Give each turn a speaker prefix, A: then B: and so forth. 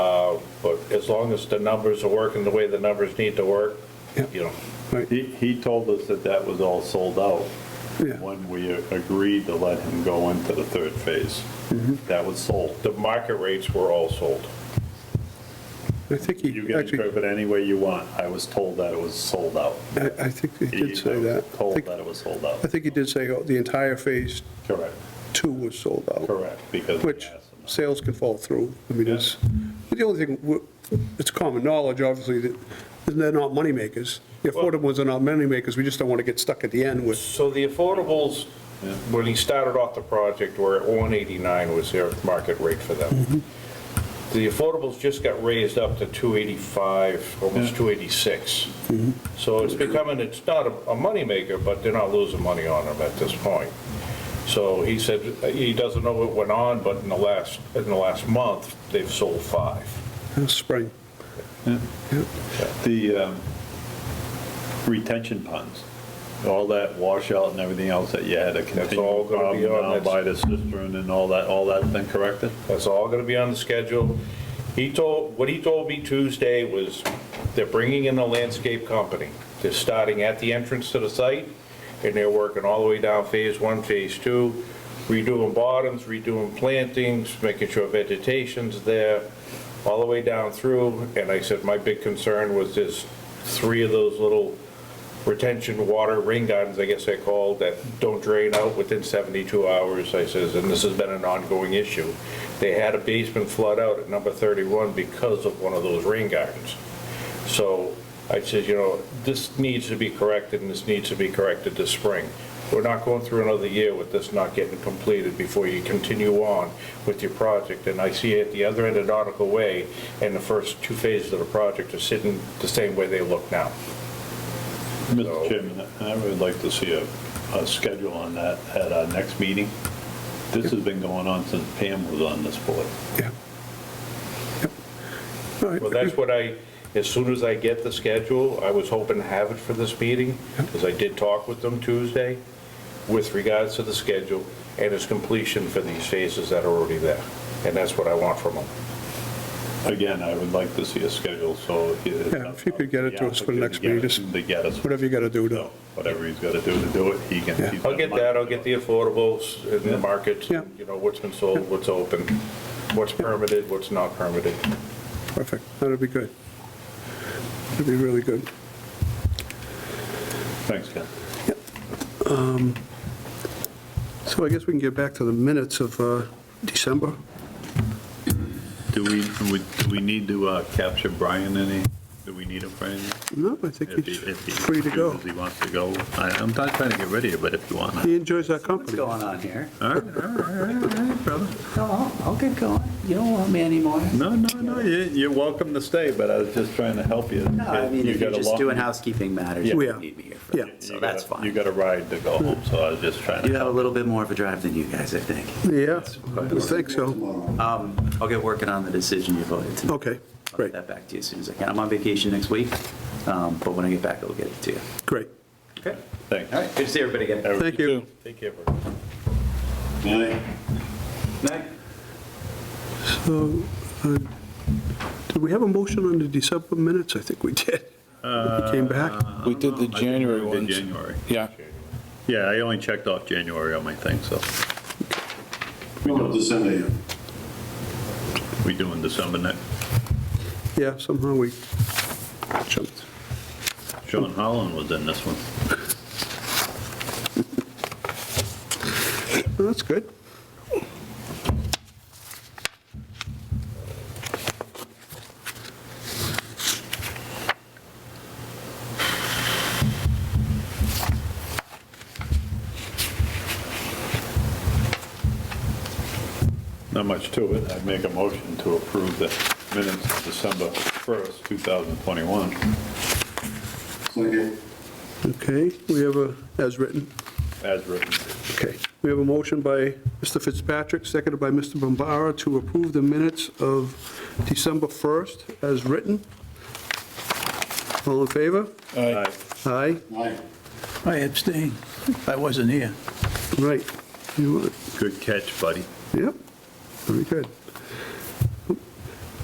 A: Uh, But as long as the numbers are working the way the numbers need to work,
B: Yeah.
A: you know,
B: Right,
C: He, he told us that that was all sold out
B: yeah,
C: when we agreed to let him go into the third phase.
B: Mm-hmm.
C: That was sold.
A: the market rates were all sold.
B: I think
C: You
B: he,
C: can
B: actually,
C: interpret any way you want. I was told that it was sold out.
B: I I think he
C: He
B: did say
C: was
B: that. I
C: Told
B: think-
C: that it was sold out.
B: I think he did say oh, the entire Phase
C: Correct,
B: 2 was sold out,
C: correct, because. we
B: which
C: asked him.
B: sales can fall through. I mean, it's, but the only thing, w- it's common knowledge, obviously, that they're not moneymakers. The affordable ones are not moneymakers, we just don't want to get stuck at the end with,
A: So the affordables,
C: Yeah.
A: when he started off the project, were at 189 was their market rate for
C: Mm-hmm.
A: them. The affordables just got raised up to 285, almost
C: Yeah. Mm-hmm.
A: 286. So it's becoming, it's not a a moneymaker, but they're not losing money on them at this point. So he said, he doesn't know what went on, but in the last, in the last month, they've sold five.
B: uh, spring.
C: The um, retention ponds, all that washout and everything else that you had to continue.
A: all gonna be
C: plowing
A: on
C: down
A: that-
C: By the cistern and all that, all that's been corrected?
A: That's all gonna be on the schedule. He told, what he told me Tuesday was they're bringing in a landscape company. They're starting at the entrance to the site, and they're working all the way down Phase One, Phase Two, redoing bottoms, redoing plantings, making sure vegetation's there, all the way down through. And I said, my big concern was there's three of those little retention water rain gardens, I guess they're called, that don't drain out within 72 hours, I says, and this has been an ongoing issue. They had a basement flood out at number 31 because of one of those rain gardens. So I says, you know, this needs to be corrected, and this needs to be corrected this spring. We're not going through another year with this not getting completed before you continue on with your project. And I see at the other end of Nautical Way, and the first two phases of the project are sitting the same way they look now.
C: Mr. Chairman, I would like to see a, a schedule on that at our next meeting. This has been going on since Pam was on this board.
B: Yeah. Yep. All right.
A: Well, that's what I, as soon as I get the schedule, I was hoping to have it for this meeting, because I did talk with them Tuesday with regards to the schedule and its completion for these phases that are already there. And that's what I want from them.
C: Again, I would like to see a schedule, so.
B: Yeah, if you could get it to us for the next
C: Yeah,
B: meeting, just
C: To get us,
B: Whatever you got to do to,
C: so, whatever he's got to do to do it, he can.
B: Yeah.
C: he's
A: I'll get
C: got
A: that, I'll get the affordables and the
C: Yeah.
A: markets,
B: Yeah.
A: you know, what's been sold, what's open, what's permitted, what's not permitted.
B: perfect, that'd be good. That'd be really good.
C: Thanks, Ken.
B: So I guess we can get back to the minutes of uh, December.
C: Do we, do we need to uh, capture Brian any? Do we need him for anything?
B: No, I think he's free to go.
C: He wants to go. I'm not trying to get rid of you, but if you want.
B: He enjoys our
D: What's
B: company.
D: going on here?
C: All right, all right, all right, brother.
D: No, I'll- I'll get going. You don't want me anymore.
C: No, no, no, you- you're welcome to stay, but I was just trying to help you.
D: No, I mean,
C: You
D: if you're
C: got a
D: just
C: long-
D: doing housekeeping matters,
C: Yeah.
D: you
B: We are.
D: don't need me here for
B: Yeah.
D: that, so that's
C: You got a- You
D: fine.
C: got a ride to go home, so I was just trying to.
D: You have a
C: help.
D: little bit more of a drive than you guys, I think.
B: Yeah, I think so.
D: Um, I'll get working on the decision you voted tonight.
B: Okay,
D: I'll get
B: great,
D: that back to you as soon as I can. I'm on vacation next week, um, but when I get back, I'll get it to you.
B: great.
D: Okay.
C: Thanks.
D: All right, good to see everybody again.
B: Thank you.
A: Take care, Bert.
D: Night.
B: So, uh, did we have a motion on the December minutes? I think we did. We came back.
E: We did the
C: I think
E: January
C: we did
E: ones.
C: January.
E: Yeah,
C: Yeah, I only checked off January on my thing, so
F: What about December yet?
C: we doing December next.
B: Yeah, somehow we jumped.
C: Sean Holland was in this one.
B: Well, That's good.
C: Not much to it. I make a motion to approve the minutes of December 1st, 2021.
F: Second.
B: Okay, we have a, as written.
C: As written.
B: Okay, we have a motion by Mr. Fitzpatrick, seconded by Mr. Bombara, to approve the minutes of December 1st as written. All in favor?
C: Aye.
B: Aye,
F: Aye.
G: I abstain. I wasn't here.
B: right. You,
C: Good catch, buddy.
B: Yep, very good.